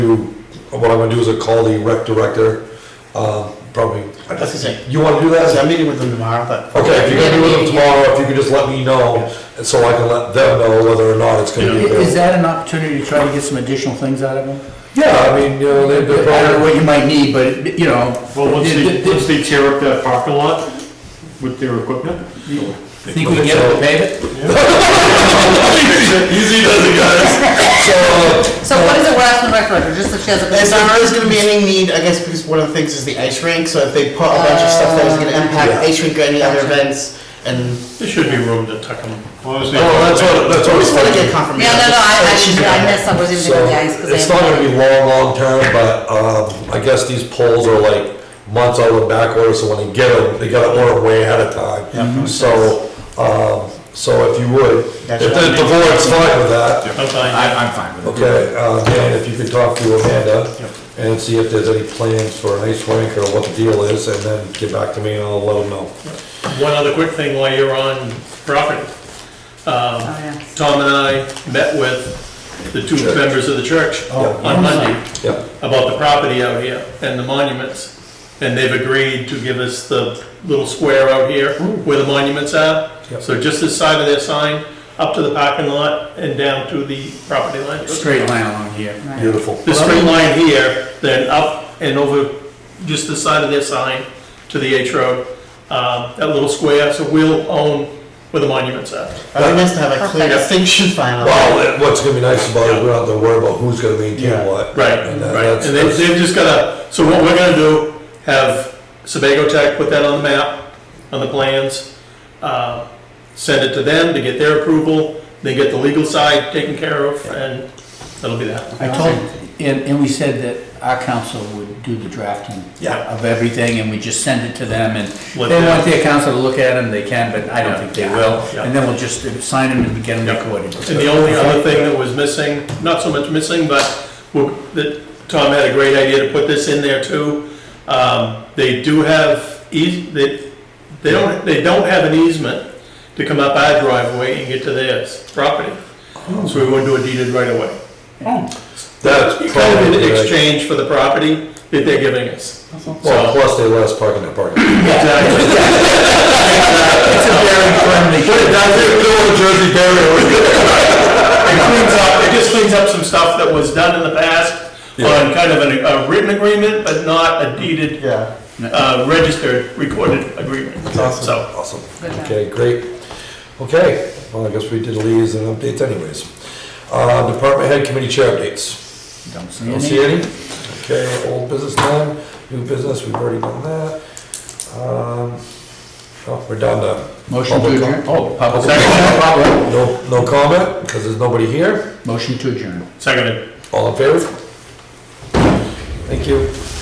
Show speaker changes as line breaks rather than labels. what I'm gonna do is I'll call the rec director, um, probably,
That's the same.
you wanna do that?
So I'm meeting with them tomorrow, but.
Okay, if you're gonna be with them tomorrow, if you could just let me know, and so I can let them know whether or not it's gonna be
Is
available.
that an opportunity to try to get some additional things out of them?
Yeah, I mean, you know, they,
I
they're
don't know
probably,
what you might need, but, you know.
Well, once
th-
they,
th-
once they tear up that parking lot with their equipment.
Think we can get them to pave it?
easy does it, guys. So, uh,
So what is it we're asking the rec director, just that she has a
There's
concern?
not really gonna be any need, I guess, because one of the things is the ice rink, so if they put a bunch of stuff that is gonna impact
Yeah.
the ice rink or any other events, and.
There should be room to tuck them. Honestly.
oh, that's what, that's what. I was
We just wanna
thinking.
get confirmation.
Yeah, no, no, I, I just, I missed, I wasn't even
So,
gonna be ice, because I.
it's not gonna be long, long term, but, um, I guess these polls are like months out of the back order, so when they get them, they gotta order 'em way ahead of time. So, um, so if you would, if the
That's
if the board's fine with that,
I'm fine.
I'm fine with
okay, uh, Dan, if you could talk to Amanda and see if there's any plans for an ice rink or what the deal is, and then get back to me and I'll let them know.
One other quick thing while you're on property. Um,
Oh, yeah.
Tom and I met with the two
Church. Oh,
members of the church on Monday
Yeah,
about the property out here and the monuments. And they've agreed to give us the little square out here where the monuments are.
Yep.
So just this side of their sign, up to the parking lot and down to the property line.
Straight line along here.
Right.
beautiful.
The straight line here, then up and over just the side of their sign to the H Road, um, that little square, so we'll own where the monuments are.
It'd be nice to have a clear
Perfect.
distinction final.
Well, what's gonna be nice about it, we don't have to worry about who's gonna maintain what.
Right,
And that-
right,
that's-
and they, they've just gotta, so what we're gonna do, have Sebago Tech put that on the map, on the plans, uh, send it to them to get their approval, they get the legal side taken care of, and that'll be that.
I told, and, and we said that our council would do the drafting
Yeah.
of everything, and we just send it to them, and if
Let
they
them-
want their council to look at them, they can, but I don't think they will,
Yeah.
and then we'll just sign them and get them
Yeah.
recorded.
And the only other thing that was missing, not so much missing, but we'll- that Tom had a great idea to put this in there too. Um, They do have, eas- they, they don't, they don't have an easement to come up our driveway and get to theirs property. So we wouldn't do a deeded right away.
That's
It's Kind of
probably
in
the right.
exchange for the property that they're giving us.
Well,
So-
plus they let us park in that parking lot.
Exactly.
It's a very friendly.
Jersey barrier.
It cleans up, it just cleans up some stuff that was done in the past on kind of an- a written agreement, but not a deeded
Yeah.
uh, registered, recorded agreement.
awesome.
So,
Awesome.
Good job.
Okay, great. Okay, well, I guess we did leaves and updates anyways. Uh, department head committee chair updates.
Don't see
Don't
any.
see any? Okay, old business done, new business, we've already done that. Um, oh, we're down to
Motion to
Public
adjourn, oh, public
no, no comment, because there's nobody here.
Motion to adjourn.
seconded.
All in favor? Thank you.